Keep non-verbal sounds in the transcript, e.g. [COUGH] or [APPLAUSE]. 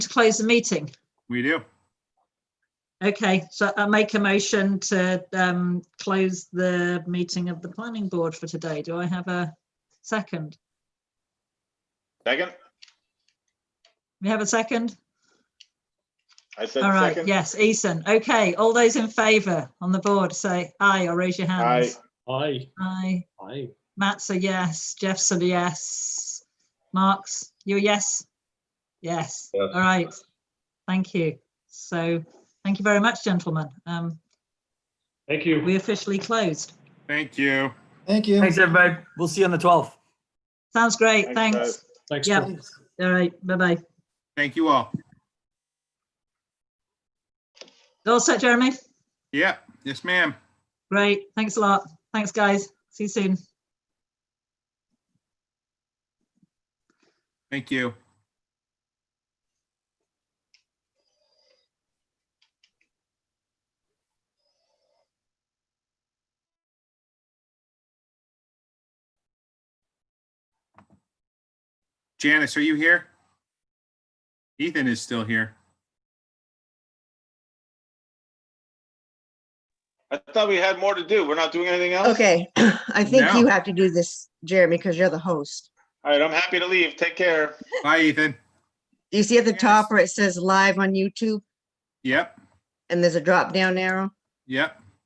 to close the meeting? We do. Okay, so I make a motion to um close the meeting of the planning board for today. Do I have a second? Second? We have a second? I said All right, second. yes, Ethan. Okay, all those in favour on the board, say aye or raise your hands. Aye, Aye. aye. Matt's a yes, Jeff's a yes. Mark's, you're a yes? Yes, Yes. all right. Thank you. So, thank you very much, gentlemen. Um, Thank you. we officially closed. Thank you. Thank you. Thanks, everybody. We'll see you on the 12th. Sounds great, Thanks, guys. thanks. Thanks. Yeah. Chris. All right, bye-bye. Thank you all. All set, Jeremy? Yeah. Yes, ma'am. Great. Thanks a lot. Thanks, guys. See you soon. Thank you. Janice, are you here? Ethan is still here. I thought we had more to do. We're not doing anything else? Okay, [CLEARS THROAT] I think No. you have to do this, Jeremy, because you're the host. All right, I'm happy to leave. Take care. Bye, Ethan. Do you see at the Yes. top where it says live on YouTube Yep, and there's a drop down arrow? yep.